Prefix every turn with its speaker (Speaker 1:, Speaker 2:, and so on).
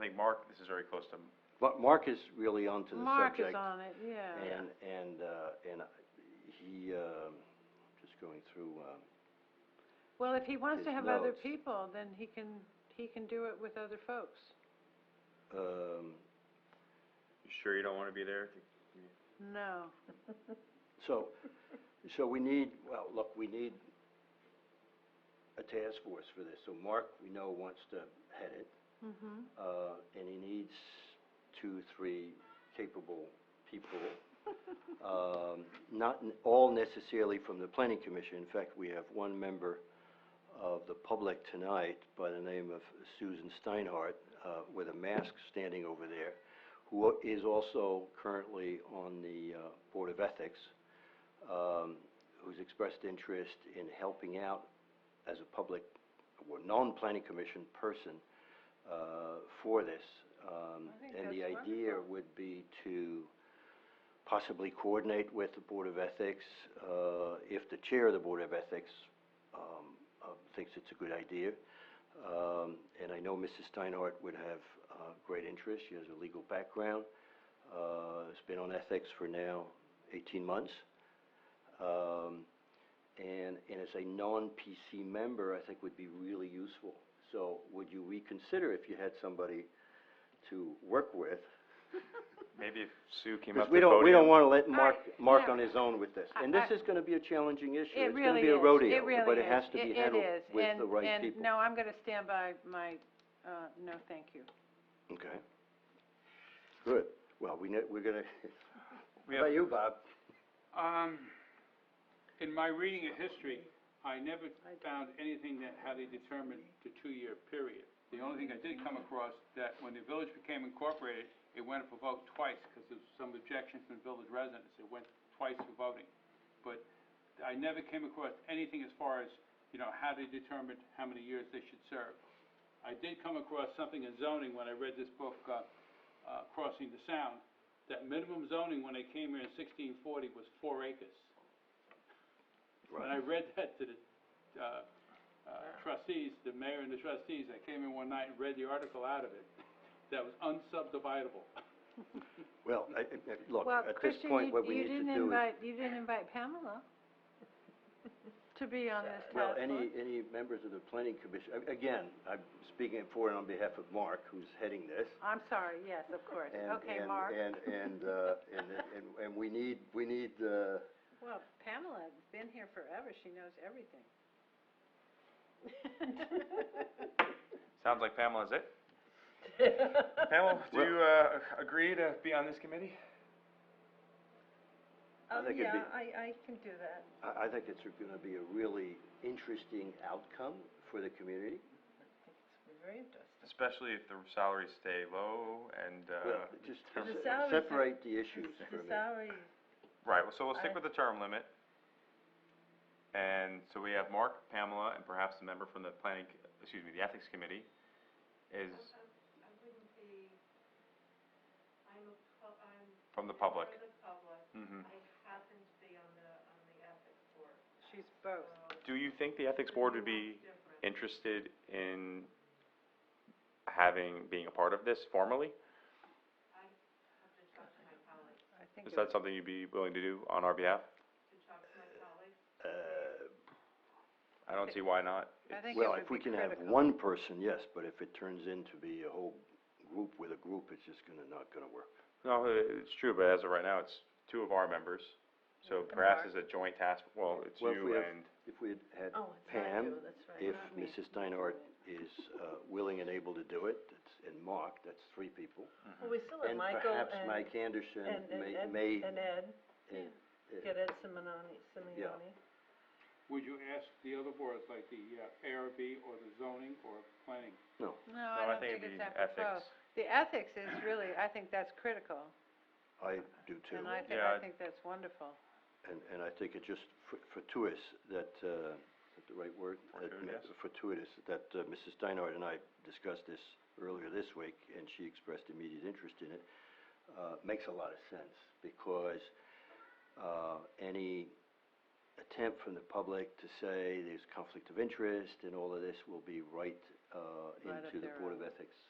Speaker 1: think Mark, this is very close to,
Speaker 2: Um, But Mark is really onto the
Speaker 3: Mark
Speaker 2: subject.
Speaker 3: is on it, yeah.
Speaker 2: And, and, uh, and he, um, just going through, um,
Speaker 3: Well, if he wants to
Speaker 2: his
Speaker 3: have other
Speaker 2: notes.
Speaker 3: people, then he can, he can do it with other folks.
Speaker 2: um,
Speaker 1: you sure you don't wanna be there?
Speaker 3: No.
Speaker 2: so, so we need, well, look, we need a task force for this. So Mark, we know, wants to head it,
Speaker 3: Mm-hmm.
Speaker 2: uh, and he needs two, three capable people. Um, not n- all necessarily from the planning commission. In fact, we have one member of the public tonight by the name of Susan Steinhardt, uh, with a mask standing over there, who is also currently on the, uh, Board of Ethics, um, who's expressed interest in helping out as a public, or non-planning commission person, uh, for this. Um,
Speaker 3: I think
Speaker 2: and the
Speaker 3: that's
Speaker 2: idea
Speaker 3: wonderful.
Speaker 2: would be to possibly coordinate with the Board of Ethics, uh, if the chair of the Board of Ethics, um, uh, thinks it's a good idea. Um, and I know Mrs. Steinhardt would have, uh, great interest. She has a legal background. Uh, has been on ethics for now eighteen months. Um, and, and as a non-PC member, I think would be really useful. So would you reconsider if you had somebody to work with?
Speaker 1: Maybe if Sue came up
Speaker 2: Because
Speaker 1: to
Speaker 2: we
Speaker 1: the podium.
Speaker 2: don't, we don't wanna let Mark,
Speaker 3: I-
Speaker 2: Mark
Speaker 3: yeah.
Speaker 2: on his own with this.
Speaker 3: I-
Speaker 2: And this
Speaker 3: I-
Speaker 2: is gonna be a challenging issue. It's gonna
Speaker 3: It really
Speaker 2: be a
Speaker 3: is.
Speaker 2: rodeo,
Speaker 3: It really
Speaker 2: but it
Speaker 3: is.
Speaker 2: has to be
Speaker 3: It-
Speaker 2: handled
Speaker 3: it is.
Speaker 2: with
Speaker 3: And-
Speaker 2: the right people.
Speaker 3: And, no, I'm gonna stand by my, uh, no, thank you.
Speaker 2: Okay. Good. Well, we know, we're gonna,
Speaker 1: We
Speaker 2: how
Speaker 1: have-
Speaker 2: about you, Bob?
Speaker 4: Um, in my reading of history, I never found anything that how they determined the two-year period. The only thing I did come across, that when the village became incorporated, it went up for vote twice, because there was some objection from village residents, it went twice for voting. But I never came across anything as far as, you know, how they determined how many years they should serve. I did come across something in zoning when I read this book, uh, uh, Crossing the Sound, that minimum zoning when they came here in sixteen forty was four acres. When I read that to the, uh, uh, trustees, the mayor and the trustees, I came in one night and read the article out of it, that was unsubdividable.
Speaker 2: Well, I, I- I- look,
Speaker 3: Well,
Speaker 2: at this
Speaker 3: Christian,
Speaker 2: point,
Speaker 3: you-
Speaker 2: what we need to do is.
Speaker 3: You didn't invite, you didn't invite Pamela to be on this task
Speaker 2: Well,
Speaker 3: force.
Speaker 2: any, any members of the planning commission, a- again, I'm speaking for and on behalf of Mark, who's heading this.
Speaker 3: I'm sorry, yes, of course.
Speaker 2: and-
Speaker 3: Okay,
Speaker 2: and-
Speaker 3: Mark.
Speaker 2: And, and, uh, and, and, and we need, we need, uh,
Speaker 3: Well, Pamela's been here forever, she knows everything.
Speaker 1: Sounds like Pamela's it. Pamela, do
Speaker 2: Well-
Speaker 1: you, uh, agree to be on this committee?
Speaker 2: I think it'd be-
Speaker 3: Oh, I, I can do that.
Speaker 2: I, I think it's gonna be a really interesting outcome for the community.
Speaker 3: Very interesting.
Speaker 1: Especially if the salaries stay low and, uh,
Speaker 2: Well, just
Speaker 3: The
Speaker 2: se-
Speaker 3: salary thing-
Speaker 2: separate the issues for a minute.
Speaker 3: salary.
Speaker 1: right, well, so we'll
Speaker 3: I-
Speaker 1: stick with the term limit. And so we have Mark, Pamela, and perhaps the member from the planning, c- excuse me, the ethics committee is. I wouldn't be, I'm a, I'm. From the public. Mm-hmm.
Speaker 3: She's both.
Speaker 1: Do you think the ethics board would be interested in having, being a part of this formally?
Speaker 3: I think
Speaker 1: Is
Speaker 3: it
Speaker 1: that something you'd be willing to do on our behalf?
Speaker 2: Uh,
Speaker 1: I don't see why not.
Speaker 3: I think it
Speaker 2: Well,
Speaker 3: would
Speaker 2: if we
Speaker 3: be
Speaker 2: can have
Speaker 3: critical.
Speaker 2: one person, yes, but if it turns into be a whole group with a group, it's just gonna, not gonna work.
Speaker 1: No, i- it's true, but as of right now, it's two of our members, so
Speaker 3: And
Speaker 1: perhaps
Speaker 3: Mark.
Speaker 1: as a joint task, well, it's
Speaker 2: Well, if we
Speaker 1: you
Speaker 2: have-
Speaker 1: and,
Speaker 2: If we had had
Speaker 3: Oh, it's not
Speaker 2: Pam,
Speaker 3: you, that's right,
Speaker 2: if
Speaker 3: not me.
Speaker 2: Mrs. Steinhardt is uh, willing and able to do it, that's- and Mark, that's three people.
Speaker 5: Well, we still have
Speaker 2: And
Speaker 5: Michael
Speaker 2: perhaps
Speaker 5: and,
Speaker 2: Mike
Speaker 5: and,
Speaker 2: Anderson
Speaker 5: and
Speaker 2: may,
Speaker 5: Ed,
Speaker 2: may,
Speaker 5: and Ed,
Speaker 2: eh, eh,
Speaker 5: get Ed Simonani, Simeoni.
Speaker 4: Would you ask the other boards, like the uh, ARB or the zoning or planning?
Speaker 2: no,
Speaker 3: No,
Speaker 1: no,
Speaker 3: I don't think
Speaker 1: it'd
Speaker 3: it's
Speaker 1: be
Speaker 3: apropos.
Speaker 1: ethics.
Speaker 3: The ethics is really, I think that's critical,
Speaker 2: I do too.
Speaker 3: and I think,
Speaker 1: Yeah,
Speaker 3: I
Speaker 1: I-
Speaker 3: think that's wonderful.
Speaker 2: And, and I think it just fr- fortuitous that, uh, is that the right word? That m-
Speaker 1: Fortuitous.
Speaker 2: Fortuitous, that uh, Mrs. Steinhardt and I discussed this earlier this week, and she expressed immediate interest in it. Uh, makes a lot of sense, because, uh, any attempt from the public to say there's conflict of interest and all of this will be right, uh,
Speaker 3: Right up
Speaker 2: into the
Speaker 3: their
Speaker 2: Board of Ethics